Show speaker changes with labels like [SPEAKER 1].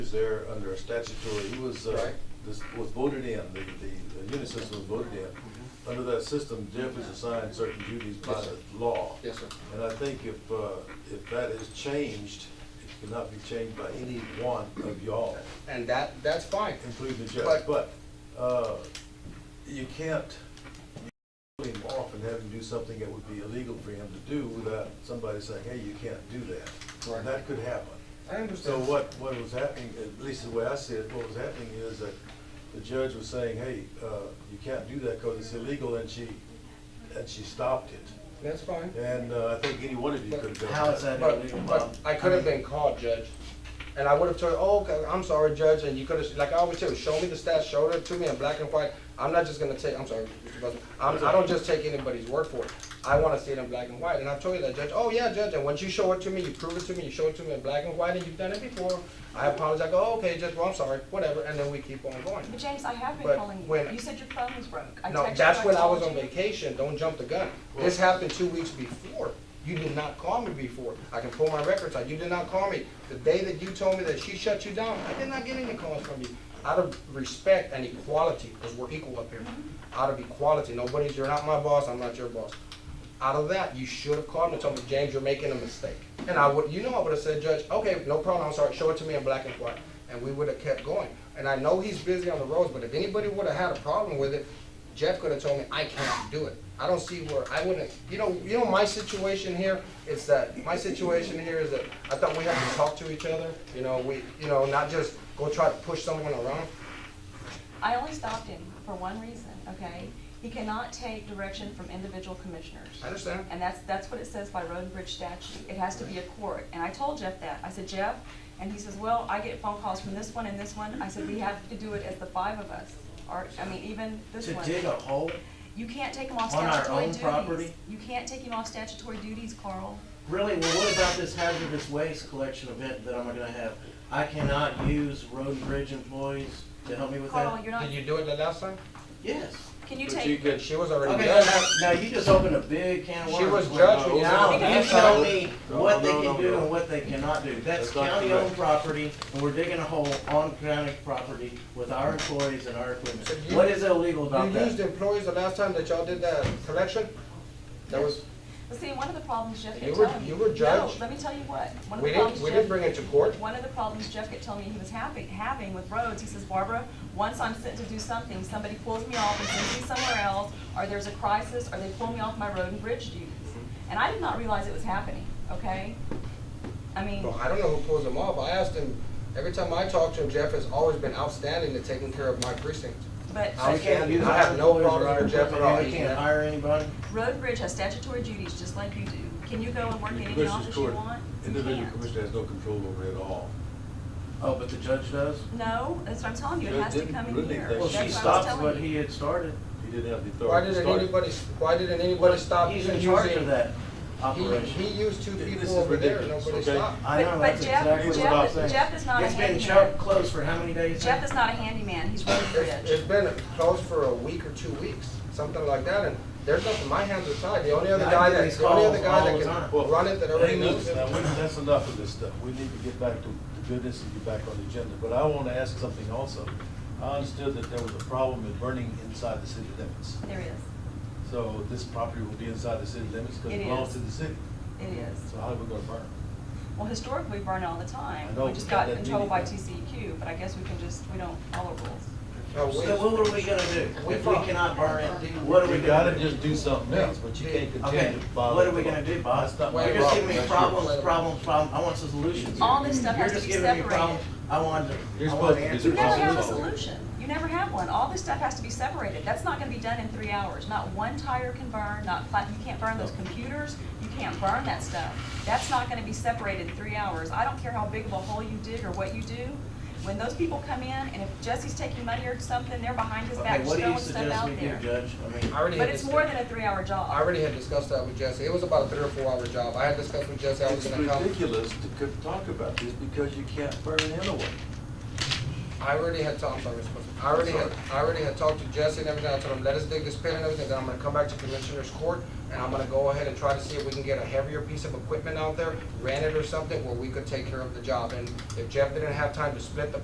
[SPEAKER 1] was there under a statutory, he was, uh,
[SPEAKER 2] Right.
[SPEAKER 1] this was voted in, the, the, the unit system was voted in. Under that system, Jeff is assigned certain duties by
[SPEAKER 2] Mm-hmm. Yes, sir.
[SPEAKER 1] the law.
[SPEAKER 2] Yes, sir.
[SPEAKER 1] And I think if, uh, if that is changed, it cannot be changed by any one of y'all,
[SPEAKER 2] And that, that's fine.
[SPEAKER 1] including the judge.
[SPEAKER 2] But-
[SPEAKER 1] But, uh, you can't put him off and have him do something that would be illegal for him to do without somebody saying, hey, you can't do that.
[SPEAKER 2] Right.
[SPEAKER 1] That could happen.
[SPEAKER 2] I
[SPEAKER 1] So
[SPEAKER 2] understand.
[SPEAKER 1] what, what was happening, at least the way I see it, what was happening is that the judge was saying, hey, uh, you can't do that because it's illegal, and she, and she stopped it.
[SPEAKER 2] That's fine.
[SPEAKER 1] And uh, I think any one of you could have done that.
[SPEAKER 3] How is that illegal,
[SPEAKER 2] But,
[SPEAKER 3] Bob?
[SPEAKER 2] but I could have been called, Judge. And I would have told, oh, okay, I'm sorry, Judge, and you could have, like I always tell you, show me the stats, show it to me in black and white. I'm not just gonna take, I'm sorry, Mr. Buzzard, I'm, I don't just take anybody's word for it. I wanna see it in black and white, and I told you that, Judge, oh, yeah, Judge, and once you show it to me, you prove it to me, you show it to me in black and white, and you've done it before. I apologize, I go, "Oh, okay, Judge, well, I'm sorry, whatever, and then we keep on going.
[SPEAKER 4] But James, I have been
[SPEAKER 2] But
[SPEAKER 4] calling you.
[SPEAKER 2] when-
[SPEAKER 4] You said your phone was broke. I
[SPEAKER 2] No,
[SPEAKER 4] texted you,
[SPEAKER 2] that's when I was
[SPEAKER 4] told
[SPEAKER 2] on
[SPEAKER 4] you.
[SPEAKER 2] vacation, don't jump the gun. This happened two weeks before. You did not call me before. I can pull my records out, you did not call me. The day that you told me that she shut you down, I did not get any calls from you. Out of respect and equality, because we're equal up here,
[SPEAKER 4] Mm-hmm.
[SPEAKER 2] out of equality, nobody's, you're not my boss, I'm not your boss. Out of that, you should have called me and told me, James, you're making a mistake. And I would, you know, I would have said, Judge, okay, no problem, I'm sorry, show it to me in black and white. And we would have kept going. And I know he's busy on the roads, but if anybody would have had a problem with it, Jeff could have told me, I cannot do it. I don't see where, I wouldn't, you know, you know, my situation here is that, my situation here is that I thought we had to talk to each other, you know, we, you know, not just go try to push someone around.
[SPEAKER 4] I only stopped him for one reason, okay? He cannot take direction from individual commissioners.
[SPEAKER 2] I understand.
[SPEAKER 4] And that's, that's what it says by road and bridge statute. It has to be a court. And I told Jeff that. I said, Jeff, and he says, well, I get phone calls from this one and this one. I said, we have to do it as the five of us, or, I mean, even this
[SPEAKER 3] To
[SPEAKER 4] one.
[SPEAKER 3] dig a hole?
[SPEAKER 4] You can't take him off
[SPEAKER 3] On our
[SPEAKER 4] statutory
[SPEAKER 3] own
[SPEAKER 4] duties.
[SPEAKER 3] property?
[SPEAKER 4] You can't take him off statutory duties, Carl.
[SPEAKER 3] Really, well, what about this hazardous waste collection event that I'm gonna have? I cannot use road and bridge employees to help me with
[SPEAKER 4] Carl,
[SPEAKER 3] that?
[SPEAKER 4] you're not,
[SPEAKER 2] Did you do it the last time?
[SPEAKER 3] Yes.
[SPEAKER 4] can you
[SPEAKER 1] But
[SPEAKER 4] take?
[SPEAKER 1] you could-
[SPEAKER 2] She was already
[SPEAKER 3] Okay,
[SPEAKER 2] done.
[SPEAKER 3] now, now you just opened a big can of
[SPEAKER 2] She
[SPEAKER 3] worms.
[SPEAKER 2] was
[SPEAKER 3] when-
[SPEAKER 2] judged when-
[SPEAKER 3] Now, you
[SPEAKER 4] Because-
[SPEAKER 3] tell me
[SPEAKER 1] No,
[SPEAKER 3] what they
[SPEAKER 1] no, no,
[SPEAKER 3] can do
[SPEAKER 1] no.
[SPEAKER 3] and what they cannot do. That's
[SPEAKER 1] That's not
[SPEAKER 3] county-owned
[SPEAKER 1] correct.
[SPEAKER 3] property, and we're digging a hole on county property with our employees and our equipment.
[SPEAKER 2] So you-
[SPEAKER 3] What is illegal
[SPEAKER 2] You
[SPEAKER 3] about
[SPEAKER 2] used
[SPEAKER 3] that?
[SPEAKER 2] employees the last time that y'all did that collection? That was,
[SPEAKER 4] Well, see, one of the problems Jeff
[SPEAKER 2] You
[SPEAKER 4] kept
[SPEAKER 2] were-
[SPEAKER 4] telling me.
[SPEAKER 2] you were
[SPEAKER 4] No,
[SPEAKER 2] judged.
[SPEAKER 4] let me tell you what. One of
[SPEAKER 2] we
[SPEAKER 4] the problems
[SPEAKER 2] didn't, we didn't
[SPEAKER 4] Jeff-
[SPEAKER 2] bring it to court.
[SPEAKER 4] One of the problems Jeff kept telling me he was happy, having with roads, he says, Barbara, once I'm sent to do something, somebody pulls me off and sends me somewhere else, or there's a crisis, or they pull me off my road and bridge duties.
[SPEAKER 2] Mm-hmm.
[SPEAKER 4] And I did not realize it was happening, okay? I mean,
[SPEAKER 2] Well, I don't know who pulls them off. I asked him, every time I talk to him, Jeff has always been outstanding at taking care of my precinct.
[SPEAKER 4] but
[SPEAKER 2] I
[SPEAKER 3] We can't use
[SPEAKER 2] I have no
[SPEAKER 3] employees or
[SPEAKER 2] problem
[SPEAKER 3] our
[SPEAKER 2] with Jeff at
[SPEAKER 3] equipment, and
[SPEAKER 2] all.
[SPEAKER 3] We can't hire anybody?
[SPEAKER 4] road and bridge has statutory duties, just like you do. Can you go and work in any
[SPEAKER 1] Commissioners
[SPEAKER 4] office you
[SPEAKER 1] Court,
[SPEAKER 4] want? You
[SPEAKER 1] Individual
[SPEAKER 4] can't.
[SPEAKER 1] commissioner has no control over it at all.
[SPEAKER 3] Oh, but the judge does?
[SPEAKER 4] No, that's what I'm telling you, it
[SPEAKER 1] Judge
[SPEAKER 4] has to
[SPEAKER 1] didn't
[SPEAKER 4] come in
[SPEAKER 1] really
[SPEAKER 4] here.
[SPEAKER 1] think-
[SPEAKER 3] Well,
[SPEAKER 4] That's
[SPEAKER 3] she
[SPEAKER 4] what I was
[SPEAKER 3] stopped
[SPEAKER 4] telling
[SPEAKER 3] what
[SPEAKER 4] you.
[SPEAKER 3] he had started.
[SPEAKER 1] He didn't have the
[SPEAKER 2] Why
[SPEAKER 1] authority to
[SPEAKER 2] didn't
[SPEAKER 1] start. it.
[SPEAKER 2] anybody, why didn't anybody stop
[SPEAKER 3] He's
[SPEAKER 2] using?
[SPEAKER 3] in charge of that
[SPEAKER 2] He,
[SPEAKER 3] operation.
[SPEAKER 2] he used two
[SPEAKER 1] This
[SPEAKER 2] people
[SPEAKER 1] is
[SPEAKER 2] over there, and
[SPEAKER 1] ridiculous,
[SPEAKER 2] nobody
[SPEAKER 1] okay?
[SPEAKER 2] stopped.
[SPEAKER 3] I know,
[SPEAKER 4] But-
[SPEAKER 3] that's
[SPEAKER 4] but Jeff-
[SPEAKER 3] exactly what
[SPEAKER 1] Jeff
[SPEAKER 3] I'm
[SPEAKER 1] is-
[SPEAKER 3] saying.
[SPEAKER 4] Jeff is not a
[SPEAKER 3] It's been
[SPEAKER 4] handyman.
[SPEAKER 3] shut closed for how many days?
[SPEAKER 4] Jeff
[SPEAKER 3] now?
[SPEAKER 4] is not a handyman, he's road and
[SPEAKER 2] It's-
[SPEAKER 4] bridge.
[SPEAKER 2] it's been closed for a week or two weeks, something like that, and there's nothing, my hands are tied. The only other
[SPEAKER 3] Yeah, I
[SPEAKER 2] guy
[SPEAKER 3] get
[SPEAKER 2] that,
[SPEAKER 3] these
[SPEAKER 2] the only other
[SPEAKER 3] calls
[SPEAKER 2] guy
[SPEAKER 3] all the
[SPEAKER 2] that
[SPEAKER 3] time.
[SPEAKER 2] can
[SPEAKER 1] Well,
[SPEAKER 2] run it that already
[SPEAKER 1] hey,
[SPEAKER 2] moves
[SPEAKER 1] listen,
[SPEAKER 2] it.
[SPEAKER 1] now, we- That's enough of this stuff. We need to get back to the business and get back on the agenda, but I want to ask something also. I understood that there was a problem with burning inside the city limits.
[SPEAKER 4] There is,
[SPEAKER 1] So this property will be inside the city limits because
[SPEAKER 4] It
[SPEAKER 1] it belongs
[SPEAKER 4] is.
[SPEAKER 1] to the city.
[SPEAKER 4] it is.
[SPEAKER 1] So how are we gonna burn? it?
[SPEAKER 4] Well, historically, we burn all the time.
[SPEAKER 1] I know,
[SPEAKER 4] We just
[SPEAKER 1] but
[SPEAKER 4] got
[SPEAKER 1] that
[SPEAKER 4] in trouble by
[SPEAKER 1] meeting-
[SPEAKER 4] TCEQ, but I guess we can just, we don't follow rules.
[SPEAKER 2] No, we-
[SPEAKER 3] So what are we gonna do?
[SPEAKER 2] We
[SPEAKER 3] If we
[SPEAKER 2] fought.
[SPEAKER 3] cannot burn it, what are we
[SPEAKER 1] We gotta
[SPEAKER 3] gonna do?
[SPEAKER 1] just do something else, but you can't
[SPEAKER 3] Okay,
[SPEAKER 1] continue to follow.
[SPEAKER 3] what are we
[SPEAKER 1] the law.
[SPEAKER 3] gonna do, Bob?
[SPEAKER 1] That's not my
[SPEAKER 2] Well,
[SPEAKER 3] You're just
[SPEAKER 1] problem.
[SPEAKER 3] giving me
[SPEAKER 1] That's yours.
[SPEAKER 3] problems, problems, problems. I want some solutions.
[SPEAKER 4] All this stuff
[SPEAKER 3] You're
[SPEAKER 4] has to
[SPEAKER 3] just
[SPEAKER 4] be
[SPEAKER 3] giving me problems.
[SPEAKER 4] separated.
[SPEAKER 3] I want,
[SPEAKER 1] You're
[SPEAKER 3] I
[SPEAKER 1] supposed
[SPEAKER 3] want
[SPEAKER 1] to be
[SPEAKER 3] answers.
[SPEAKER 4] You never
[SPEAKER 1] problem
[SPEAKER 4] have a
[SPEAKER 1] solved.
[SPEAKER 4] solution. You never have one. All this stuff has to be separated. That's not gonna be done in three hours. Not one tire can burn, not, pla- you can't burn those computers, you can't burn that stuff. That's not gonna be separated in three hours. I don't care how big of a hole you dig or what you do. When those people come in, and if Jesse's taking money or something, they're behind his
[SPEAKER 3] Okay,
[SPEAKER 4] back
[SPEAKER 3] what do
[SPEAKER 4] throwing
[SPEAKER 3] you
[SPEAKER 4] stuff
[SPEAKER 3] suggest we
[SPEAKER 4] out
[SPEAKER 3] do,
[SPEAKER 4] there.
[SPEAKER 3] Judge? I mean,
[SPEAKER 2] I already
[SPEAKER 4] But
[SPEAKER 2] had
[SPEAKER 4] it's
[SPEAKER 2] this-
[SPEAKER 4] more than a three-hour job.
[SPEAKER 2] I already had discussed that with Jesse. It was about a three or four hour job. I had discussed with Jesse, I was
[SPEAKER 1] It's
[SPEAKER 2] gonna come.
[SPEAKER 1] ridiculous to co- talk about this because you can't burn it anyway.
[SPEAKER 2] I already had talked, sorry, Mr. President. I already had, I already had talked to Jesse and everything, I told him, let us dig this pit and everything, then I'm gonna come back to Commissioner's Court, and I'm gonna go ahead and try to see if we can get a heavier piece of equipment out there, rent it or something, where we could take care of the job, and if Jeff didn't have time to split the